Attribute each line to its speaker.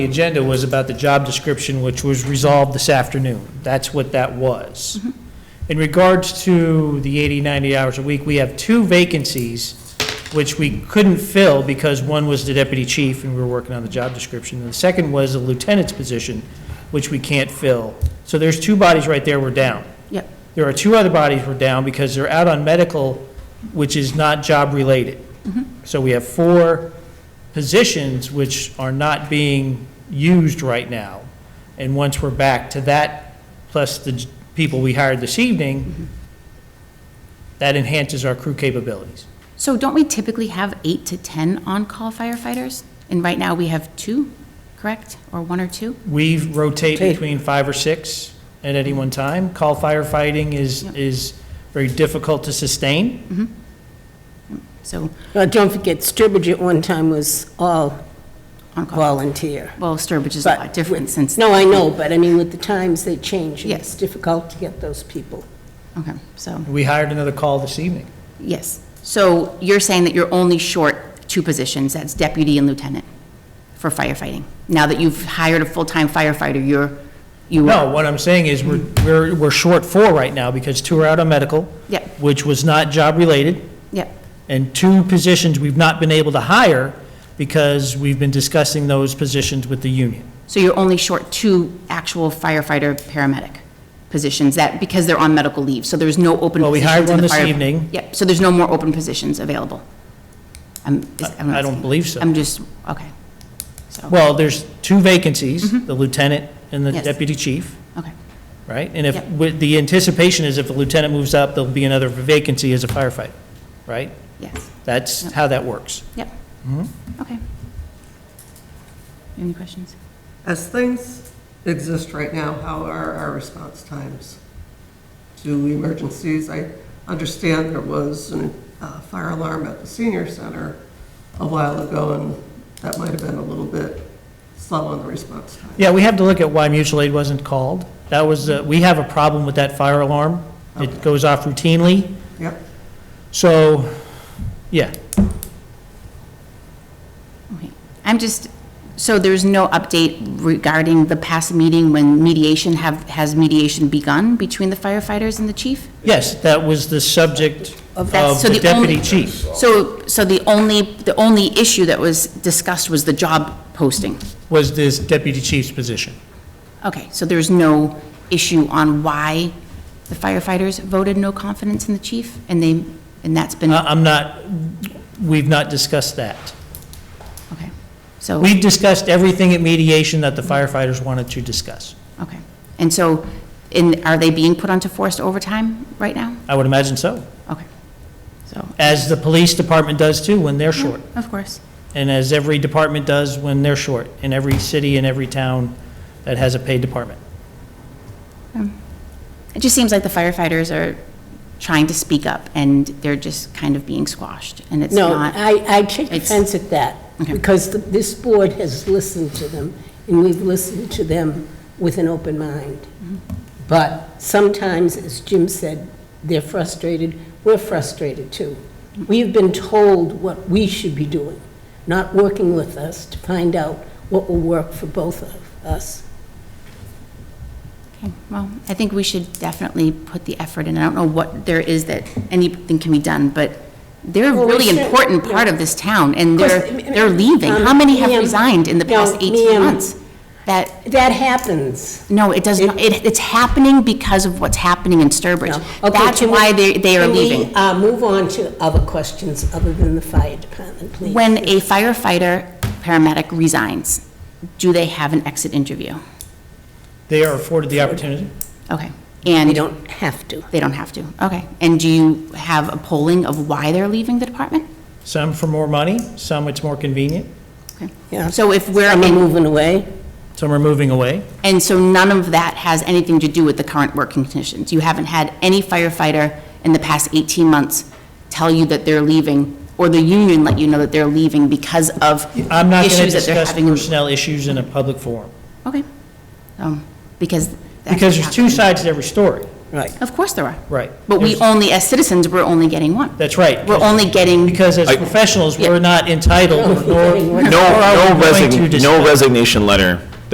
Speaker 1: The agenda was about the job description, which was resolved this afternoon. That's what that was. In regards to the 80, 90 hours a week, we have two vacancies which we couldn't fill because one was the deputy chief and we were working on the job description. And the second was the lieutenant's position, which we can't fill. So there's two bodies right there we're down.
Speaker 2: Yep.
Speaker 1: There are two other bodies we're down because they're out on medical, which is not job-related. So we have four positions which are not being used right now. And once we're back to that, plus the j- people we hired this evening, that enhances our crew capabilities.
Speaker 2: So don't we typically have eight to 10 on-call firefighters? And right now, we have two, correct? Or one or two?
Speaker 1: We rotate
Speaker 3: Rotate.
Speaker 1: between five or six at any one time. Call firefighting is,
Speaker 2: Yep.
Speaker 1: is very difficult to sustain.
Speaker 2: So
Speaker 3: Well, Uh, don't forget, Sturbridge at one time was all
Speaker 2: on-call,
Speaker 3: volunteer.
Speaker 2: well, Sturbridge is a
Speaker 3: but
Speaker 2: lot different
Speaker 3: with-
Speaker 2: since.
Speaker 3: No, I know, but I mean, with the times, they change. and It's
Speaker 2: Yes.
Speaker 3: difficult to get those people.
Speaker 2: Okay, so,
Speaker 1: We hired another call this evening.
Speaker 2: yes. So you're saying that you're only short two positions, that's deputy and lieutenant for firefighting? Now that you've hired a full-time firefighter, you're, you.
Speaker 1: No, what I'm saying is we're, we're, we're short four right now because two are out on medical.
Speaker 2: Yep.
Speaker 1: Which was not job-related.
Speaker 2: Yep,
Speaker 1: And two positions we've not been able to hire because we've been discussing those positions with the union.
Speaker 2: so you're only short two actual firefighter, paramedic positions that, because they're on medical leave, so there's no open positions.
Speaker 1: Well, we hired
Speaker 2: in
Speaker 1: one
Speaker 2: the
Speaker 1: this
Speaker 2: fire-
Speaker 1: evening.
Speaker 2: Yep, so there's no more open positions available? I'm- is- I'm not
Speaker 1: I don't
Speaker 2: saying-
Speaker 1: believe so.
Speaker 2: I'm just, okay, so,
Speaker 1: Well, there's two vacancies, the lieutenant and the
Speaker 2: Mm-hmm. Yes.
Speaker 1: deputy chief,
Speaker 2: okay,
Speaker 1: right? And if,
Speaker 2: Yep.
Speaker 1: with- the anticipation is if the lieutenant moves up, there'll be another vacancy as a firefighter, right?
Speaker 2: yes,
Speaker 1: That's
Speaker 2: Yep.
Speaker 1: how that works.
Speaker 2: yep,
Speaker 1: Mm-hmm.
Speaker 2: okay. Any questions?
Speaker 4: As things exist right now, how are our response times to emergencies? I understand there was a fire alarm at the senior center a while ago, and that might have been a little bit slow on the response time.
Speaker 1: Yeah, we have to look at why mutual aid wasn't called. That was, uh, we have a problem with that fire alarm. It goes off routinely,
Speaker 4: Yep,
Speaker 1: so, yeah.
Speaker 2: Okay. I'm just, so there's no update regarding the past meeting when mediation have, has mediation begun between the firefighters and the chief?
Speaker 1: Yes, that was the subject of
Speaker 2: That's- so
Speaker 1: the
Speaker 2: the only-
Speaker 1: deputy chief.
Speaker 2: So, so the only, the only issue that was discussed was the job posting?
Speaker 1: was this deputy chief's position.
Speaker 2: Okay, so there's no issue on why the firefighters voted no confidence in the chief? And they, and that's been,
Speaker 1: I- I'm not, we've not discussed that.
Speaker 2: okay, so,
Speaker 1: We've discussed everything at mediation that the firefighters wanted to discuss.
Speaker 2: okay. And so, and are they being put onto forced overtime right now?
Speaker 1: I would imagine so,
Speaker 2: Okay, so,
Speaker 1: as the police department does too when they're short,
Speaker 2: of course,
Speaker 1: and as every department does when they're short, in every city and every town that has a paid department.
Speaker 2: it just seems like the firefighters are trying to speak up, and they're just kind of being squashed, and it's
Speaker 3: No,
Speaker 2: not,
Speaker 3: I, I take
Speaker 2: it's-
Speaker 3: offense at that,
Speaker 2: Okay.
Speaker 3: because th- this board has listened to them, and we've listened to them with an open mind.
Speaker 2: Mm-hmm.
Speaker 3: But sometimes, as Jim said, they're frustrated, we're frustrated too. We've been told what we should be doing, not working with us to find out what will work for both of us.
Speaker 2: Okay, well, I think we should definitely put the effort in. I don't know what there is that anything can be done, but they're a
Speaker 3: Well, we
Speaker 2: really
Speaker 3: should-
Speaker 2: important part of this town, and
Speaker 3: Of course,
Speaker 2: they're,
Speaker 3: I mean,
Speaker 2: they're leaving.
Speaker 3: um,
Speaker 2: How many have
Speaker 3: ma'am,
Speaker 2: resigned in the
Speaker 3: no,
Speaker 2: past 18
Speaker 3: ma'am.
Speaker 2: months? That,
Speaker 3: That happens.
Speaker 2: no, it does not, it, it's happening because of what's happening in
Speaker 3: No.
Speaker 2: Sturbridge.
Speaker 3: Okay,
Speaker 2: That's
Speaker 3: can we-
Speaker 2: why they, they are
Speaker 3: can we,
Speaker 2: leaving.
Speaker 3: uh, move on to other questions other than the fire department, please?
Speaker 2: When a firefighter, paramedic resigns, do they have an exit interview?
Speaker 1: They are afforded the opportunity.
Speaker 2: Okay, and.
Speaker 3: We don't have to.
Speaker 2: They don't have to, okay. And do you have a polling of why they're leaving the department?
Speaker 1: Some for more money, some it's more convenient,
Speaker 3: Yeah.
Speaker 2: So if we're,
Speaker 3: Am I
Speaker 2: in-
Speaker 3: moving away?
Speaker 1: some are moving away.
Speaker 2: and so none of that has anything to do with the current working conditions? You haven't had any firefighter in the past 18 months tell you that they're leaving, or the union let you know that they're leaving because of
Speaker 1: I'm not going to
Speaker 2: issues that they're
Speaker 1: discuss
Speaker 2: having? in-
Speaker 1: personnel issues in a public forum,
Speaker 2: Okay. Um, Because. that
Speaker 1: because
Speaker 2: could
Speaker 1: there's two
Speaker 2: happen.
Speaker 1: sides to every story.
Speaker 3: Right.
Speaker 2: Of course there are.
Speaker 1: Right.
Speaker 2: But we
Speaker 1: There's-
Speaker 2: only, as citizens, we're only getting one.
Speaker 1: That's right.
Speaker 2: We're only getting,
Speaker 1: Because as
Speaker 5: I-
Speaker 1: professionals,
Speaker 2: Yeah.
Speaker 1: we're not entitled, nor
Speaker 3: No,
Speaker 1: nor
Speaker 5: No,
Speaker 1: are
Speaker 5: no
Speaker 1: we going to
Speaker 5: resign,
Speaker 1: discuss.
Speaker 5: no resignation letter